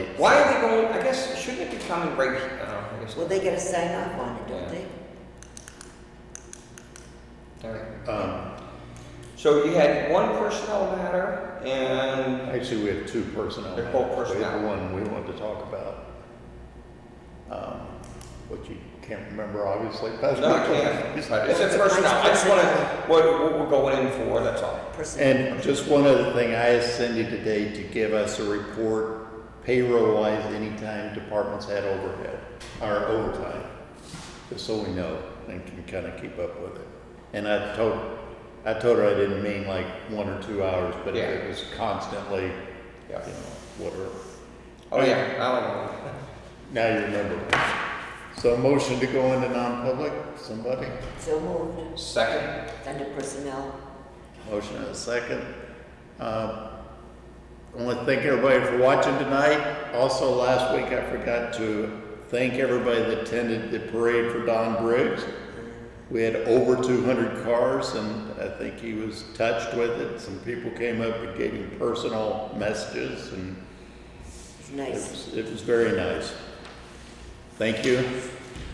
coming right, oh, I guess, Well, they gotta sign off on it, Yeah. don't they? all right. Um, So you had one personnel matter and, actually, we have two personnel. They're both matters. We have personnel. one we wanted to talk about. Um, What you can't remember, obviously. No, no, I can't. It's a It's a personnel, I just wanna, personnel. what, what we're going in for, that's all. Personnel. And just one other thing, I asked Cindy today to give us a report payroll-wise anytime departments had overhead, or overtime, just so we know and can kind of keep up with it. And I told, I told her I didn't mean like one or two hours, but if Yeah. it was constantly, you know, Yeah. whatever. Oh, yeah, I don't know. Now you remember. So motion to go into non-public, somebody? So moved, Second, under personnel. Motion and a second. Uh, I want to thank everybody for watching tonight. Also, last week I forgot to thank everybody that attended the parade for Don Briggs. We had over 200 cars, and I think he was touched with it. Some people came up and gave him personal messages, and It's it nice. was, it was very nice. Thank you.